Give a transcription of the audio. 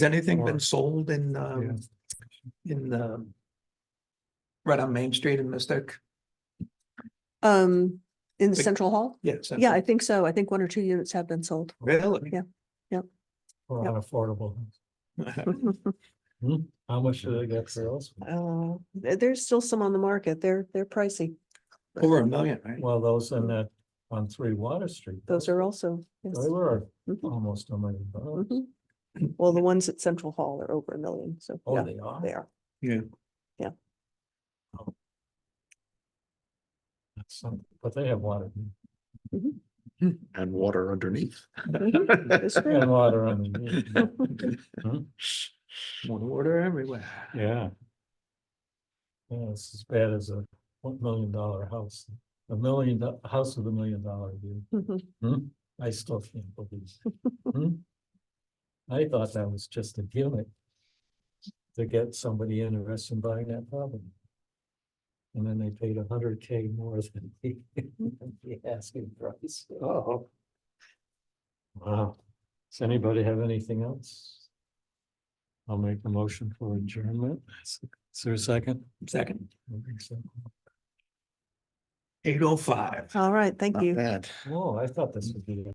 anything Or- been sold in, um, in, um, right on Main Street in Mystic? Um, in Like- Central Hall? Yes. Yeah, I think so. I think one or two units have been sold. Really? Or Yep. unaffordable. How much do they get for those? Uh, there- there's still some on the market. They're, they're pricey. but Over a million, right? Well, those in that, on three Water Street. Those are also. yes. They were Mhm, almost a million dollars. mhm. Well, the ones at Central Hall are over a million, so Oh, Mm-hmm. yeah, they are? they are. Yeah. That's something, but they have water. And water underneath. It's They have true. water on them. Water everywhere. Yeah. Yeah, it's as bad as a one million dollar house, a million, do- house with a million dollar view. Mhm. Hmm, I still can't believe. Hmm? I thought that was just a gimmick. To get somebody interested in buying that property. And then they paid a hundred K more than the the asking price. Oh. Wow. Does anybody have anything else? I'll make a motion for adjournment. Is there a second? Second, I think so. eight oh five. All right, thank you. Bad. Oh, I thought this would be. a-